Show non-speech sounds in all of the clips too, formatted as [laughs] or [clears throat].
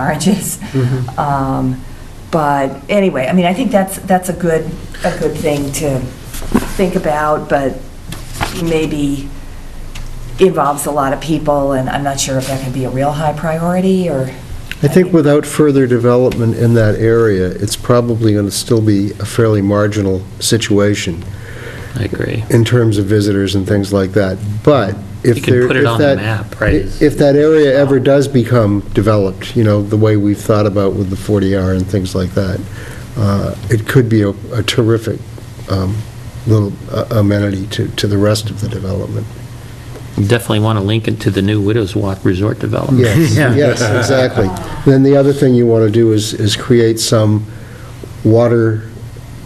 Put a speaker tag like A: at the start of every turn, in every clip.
A: marriages.
B: Mm-hmm.
A: Um, But anyway, I mean, I think that's, that's a good, a good thing to think about, but maybe involves a lot of people, and I'm not sure if that can be a real high priority, or...
B: I think without further development in that area, it's probably going to still be a fairly marginal situation
C: I agree.
B: in terms of visitors and things like that. But
C: You
B: if
C: can
B: there,
C: put it
B: if
C: on the
B: that...
C: map, right, is-
B: If that area ever does become developed, you know, the way we've thought about with the 40R and things like that, uh, it could be a a terrific um, little uh, amenity to, to the rest of the development.
C: Definitely want to link it to the new Widows Walk Resort development.
B: Yes, yes, exactly. Then the other thing you want to do is, is create some water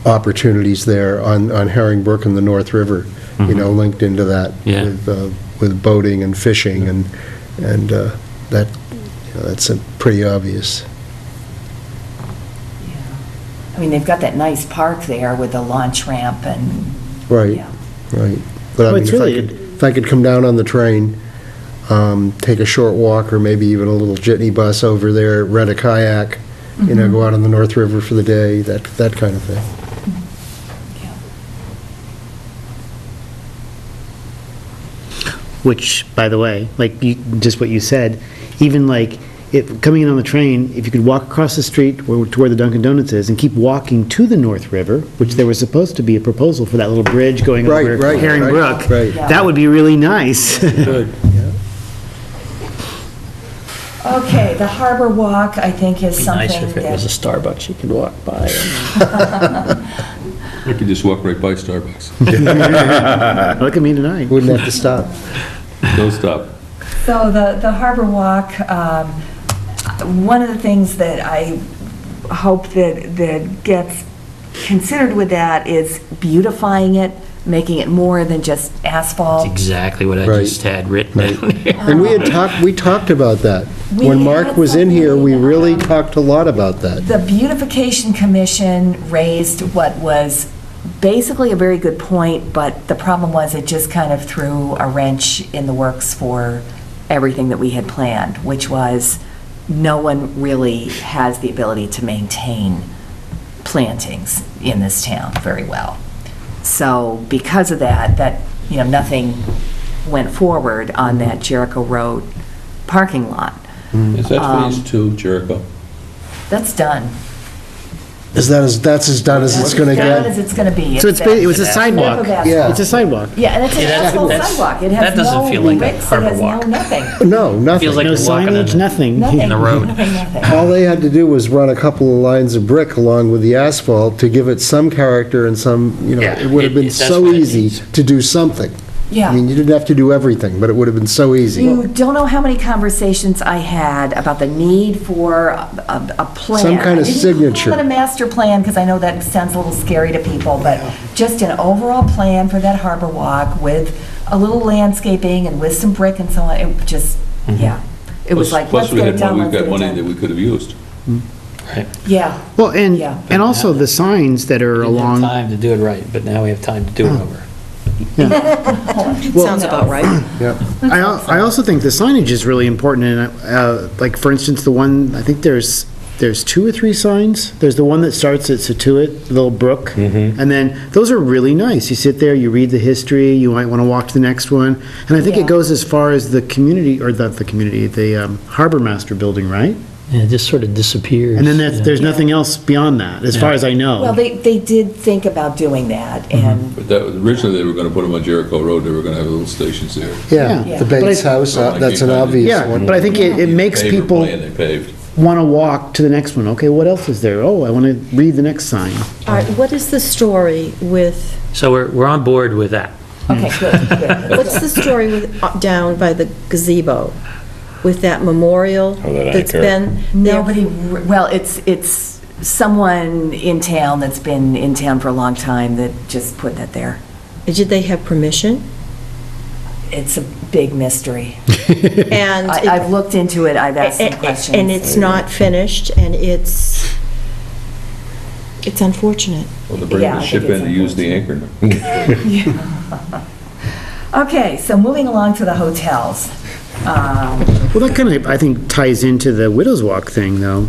B: opportunities there on, on Herring Brook and the North River, you know, linked into that.
C: Yeah.
B: with, uh, With boating and fishing and, and uh, that, you know, that's uh, pretty obvious.
A: I mean, they've got that nice park there with the launch ramp and...
B: Right,
A: yeah.
B: right. But I
D: Well,
B: mean,
D: it's
B: if I
D: really-
B: could, if I could come down on the train, um, take a short walk or maybe even a little jitney bus over there, rent a kayak, you
D: Mm-hmm.
B: know, go out on the North River for the day, that, that kind of thing.
A: yeah.
D: Which, by the way, like, you- just what you said, even like, if, coming in on the train, if you could walk across the street where- to where the Dunkin' Donuts is and keep walking to the North River, which there was supposed to be a proposal for that little bridge going
B: Right,
D: over
B: right,
D: Herring
B: right,
D: Brook,
B: right.
D: that would be
B: [laughs]
D: really nice.
A: Okay, the Harbor Walk, I think, is
C: Be nice
A: something
C: if it was a
A: that...
C: Starbucks you could walk by.
E: I could just walk right by Starbucks.
D: Look at me tonight.
B: Wouldn't have to stop.
E: No stop.
A: So the, the Harbor Walk, um, one of the things that I hope that, that gets considered with that is beautifying it, making it more than just
C: That's
A: asphalt.
C: exactly what I
B: Right.
C: just had written
B: Right.
C: down here.
B: And we had talked, we talked about that.
A: We
B: When Mark
A: had
B: was in here, we
A: something,
B: really
A: um,
B: talked a lot about that.
A: The Beautification Commission raised what was basically a very good point, but the problem was it just kind of threw a wrench in the works for everything that we had planned, which was no one really has the ability to maintain plantings in this town very well. So because of that, that, you know, nothing went forward on that Jericho Road parking lot.
E: Is
A: Um,
E: that phase two, Jericho?
A: That's done.
B: Is that as, that's as done as it's going to
A: As bad as
B: get?
A: it's going to be.
D: So it's, ba- it was a
A: that slip
D: sidewalk.
A: of asphalt.
B: Yeah.
D: It's a sidewalk.
A: Yeah, and it's an
C: Yeah, that's-
A: asphalt
C: that's-
A: sidewalk. It
C: that
A: has
C: doesn't
A: no
C: feel like a
A: bricks, it
C: harbor
A: has no
C: walk.
A: nothing.
B: No,
C: Feels like
B: nothing.
D: No
C: you're walking in
D: signage,
C: the-
D: nothing.
A: Nothing.
C: the road.
A: Nothing, nothing.
B: [laughs] All they had to do was run a couple of lines of brick along with the asphalt to give it some character and some, you know,
C: Yeah,
B: it would have
C: it-
B: been
C: it- that's
B: so
C: what it
B: easy
C: needs.
B: to do something. I mean,
A: Yeah.
B: you didn't have to do everything, but it would have been so
A: You
B: easy.
A: don't know how many conversations I had about the need for a, a- a plan.
B: Some kind of
A: I didn't
B: signature.
A: call it a master plan, because I know that sounds a little scary to people, but just an overall plan for that harbor walk with a little landscaping and with some brick and so on. It just,
C: Mm-hmm.
A: yeah. It was
E: Plus-
A: like, let's get it done, let's get
E: Plus, we had,
A: it
E: mon- we've got money that
A: done.
E: we could have used.
A: Yeah,
D: Well, and,
A: Yeah.
D: and also the signs that are
C: Didn't have
D: along,
C: Time to do it right, but now we have time to do
B: [clears throat]
C: it over.
F: Sounds about right.
B: Yep.
D: I, al- I also think the signage is really important, and, uh, like, for instance, the one, I think there's, there's two or three signs. There's the one that starts at Situate, Little Brook, and then, those are really nice. You sit there, you read the history, you might want to walk to the next one. And I think
A: Yeah.
D: it goes as far as the community, or not the community, the um, Harbor Master Building, right?
C: Yeah, it just sort of disappears.
D: And then there's,
C: yeah.
D: there's nothing else beyond that, as far as I know.
A: well, they, they did think about doing that, and
E: But that, was- originally, they were going to put them on Jericho Road, they were going to have little stations there.
B: Yeah, the
D: But I-
B: Bates House, uh, that's an obvious
D: Yeah,
B: one.
D: but I think it, it makes
E: Paver
D: people
E: plan they paved.
D: want to walk to the next one. Okay, what else is there? Oh, I want to read the next sign.
F: All right, what is the story with,
C: So we're, we're on board with that.
A: Okay, good, good.
F: [laughs] what's the story with, uh, down by the gazebo? With that memorial
G: Oh, that
F: that's
G: anchor.
F: been there?
A: Nobody, re- well, it's, it's someone in town that's been in town for a long time that just put that there.
F: Did they have permission?
G: [laughs]
A: It's a big mystery.
F: And.
A: I-
F: it-
A: I've looked into it, I've asked some
F: and-
A: questions.
F: And it's not finished, and it's, it's unfortunate.
E: Well, to bring
A: Yeah, I
E: the
A: think
E: ship
A: it's
E: in to use the anchor.
A: Okay, so moving along to the hotels. Um,
D: Well, that kind of, I think, ties into the Widows Walk thing, though.